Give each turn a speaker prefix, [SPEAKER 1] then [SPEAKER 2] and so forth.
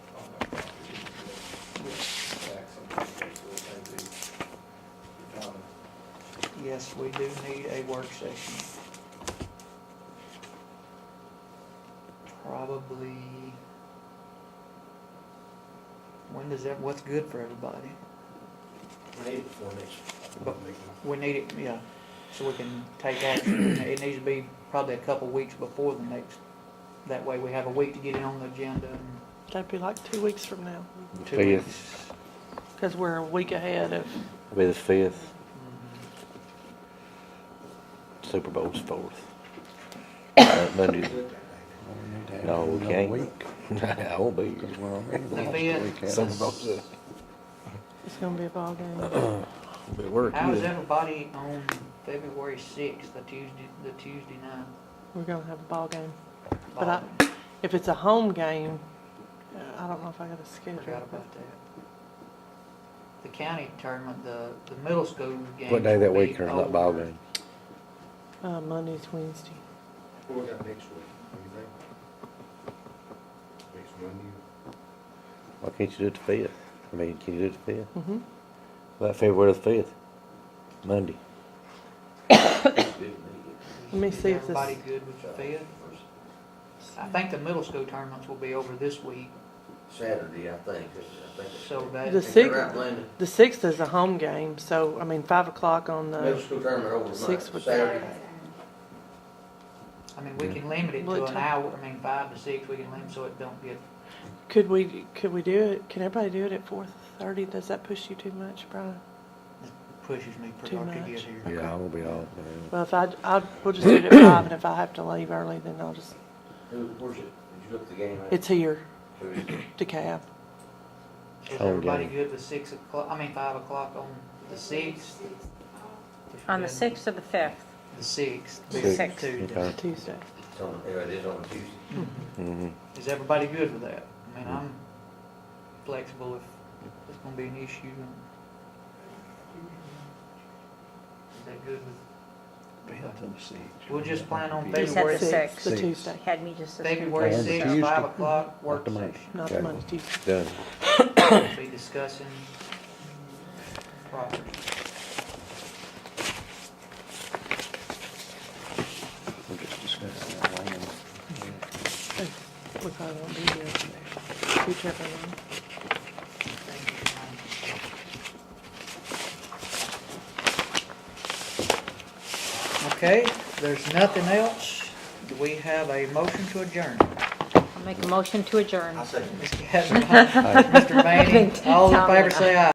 [SPEAKER 1] yes, we do need a work session. Probably. When does that, what's good for everybody?
[SPEAKER 2] We need it before next
[SPEAKER 1] But-
[SPEAKER 2] meeting.
[SPEAKER 1] We need it, yeah, so we can take action. It needs to be probably a couple weeks before the next. That way we have a week to get it on the agenda and
[SPEAKER 3] That'd be like two weeks from now,
[SPEAKER 1] two
[SPEAKER 4] Fifth.
[SPEAKER 1] weeks.
[SPEAKER 3] because we're a week ahead of,
[SPEAKER 4] It'll be the fifth.
[SPEAKER 1] Mm-hmm.
[SPEAKER 4] Super Bowl's fourth. Uh, Monday. No, we can't. I won't be here. Super Bowl's a-
[SPEAKER 3] it's gonna be a ball game.
[SPEAKER 4] Be working.
[SPEAKER 1] How is everybody on February sixth, the Tuesday, the Tuesday night?
[SPEAKER 3] We're gonna have a ball game. But I, if it's a home game, uh, I don't know if I got a
[SPEAKER 1] Oh, Forgot
[SPEAKER 3] schedule, but
[SPEAKER 1] about that. The county tournament, the, the middle school game.
[SPEAKER 4] What day that
[SPEAKER 1] will
[SPEAKER 4] week
[SPEAKER 1] be
[SPEAKER 4] or that ball game?
[SPEAKER 3] uh, Monday's Wednesday.
[SPEAKER 2] What we got next week, what do you think? Next Monday,
[SPEAKER 4] Why can't you do it the fifth? I mean, can you do it the fifth?
[SPEAKER 3] Mm-hmm.
[SPEAKER 4] About February the fifth, Monday.
[SPEAKER 3] Let me
[SPEAKER 1] Is
[SPEAKER 3] see if this-
[SPEAKER 1] Everybody good with the fifth? I think the middle school tournaments will be over this week,
[SPEAKER 5] Saturday, I think, I think.
[SPEAKER 1] so that.
[SPEAKER 3] The
[SPEAKER 5] I think
[SPEAKER 3] sixth-
[SPEAKER 5] you're right, Linda.
[SPEAKER 3] The sixth is a home game, so, I mean, five o'clock on
[SPEAKER 5] Middle
[SPEAKER 3] the,
[SPEAKER 5] school tournament over
[SPEAKER 3] Sixth
[SPEAKER 5] tonight,
[SPEAKER 3] would-
[SPEAKER 5] Saturday.
[SPEAKER 1] I mean, we can limit it to
[SPEAKER 3] What
[SPEAKER 1] an
[SPEAKER 3] time?
[SPEAKER 1] hour, I mean, five to six, we can limit so it don't get,
[SPEAKER 3] could we, could we do it, can everybody do it at four thirty? Does that push you too much, Brian?
[SPEAKER 1] pushes me pretty
[SPEAKER 3] Too
[SPEAKER 1] hard to
[SPEAKER 3] much.
[SPEAKER 1] get here.
[SPEAKER 4] Yeah, I'm gonna be off, man.
[SPEAKER 3] Well, if I, I, we'll just do it at five, and if I have to leave early, then I'll just,
[SPEAKER 5] Who, where's it, did you look at the game? at?
[SPEAKER 3] it's here,
[SPEAKER 5] Who is it?
[SPEAKER 3] DeKalb.
[SPEAKER 1] Is
[SPEAKER 4] Home
[SPEAKER 1] everybody
[SPEAKER 4] game.
[SPEAKER 1] good with six o'clock, I mean, five o'clock on the sixth?
[SPEAKER 6] On the sixth or the fifth?
[SPEAKER 1] The sixth.
[SPEAKER 6] Sixth.
[SPEAKER 1] Tuesday.
[SPEAKER 4] Okay.
[SPEAKER 3] Tuesday.
[SPEAKER 5] It's on, yeah, it is on Tuesday.
[SPEAKER 4] Mm-hmm.
[SPEAKER 1] Is everybody good with that? I mean, I'm flexible if it's gonna be an issue. and- Is that good with, we'll just plan on
[SPEAKER 6] You said
[SPEAKER 1] February
[SPEAKER 6] the
[SPEAKER 1] sixth,
[SPEAKER 6] sixth.
[SPEAKER 3] The Tuesday,
[SPEAKER 6] Had me just. as
[SPEAKER 1] February
[SPEAKER 4] Plan the
[SPEAKER 1] sixth,
[SPEAKER 4] Tuesday.
[SPEAKER 1] five o'clock work
[SPEAKER 4] the Monday.
[SPEAKER 1] session.
[SPEAKER 3] not
[SPEAKER 4] Okay.
[SPEAKER 3] the Monday, Tuesday.
[SPEAKER 4] Done.
[SPEAKER 1] We'll Be discussing property.
[SPEAKER 4] We're just discussing that land.
[SPEAKER 3] We probably won't be here. Be careful. Lynn.
[SPEAKER 1] Okay, there's nothing else. Do we have a motion to adjourn?
[SPEAKER 6] I'll make a motion to adjourn.
[SPEAKER 5] I second.
[SPEAKER 1] Ms. Kavanaugh, Mr. Manning, all in favor, say aye.